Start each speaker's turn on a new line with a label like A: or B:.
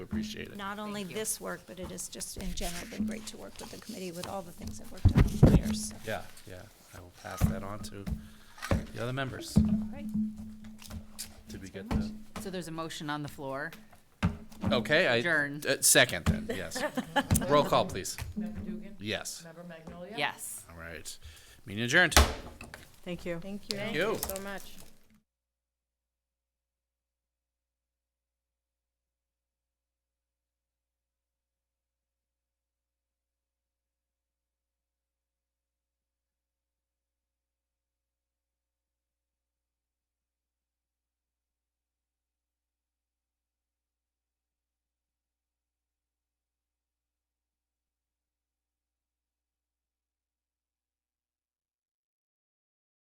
A: Appreciate it.
B: not only this work, but it has just in general been great to work with the committee with all the things that worked on over the years. so.
A: Yeah, yeah, I will pass that on to the other members.
B: Right.
A: Did we get the,
C: So there's a motion on the floor.
A: okay, I.
C: Adjourn.
A: uh, Second then, yes. Roll call, please.
D: Member Dugan?
A: Yes,
D: Member Magnolia?
C: Yes.
A: all right. Meeting adjourned.
E: Thank you.
F: Thank you.
A: you.
F: So much.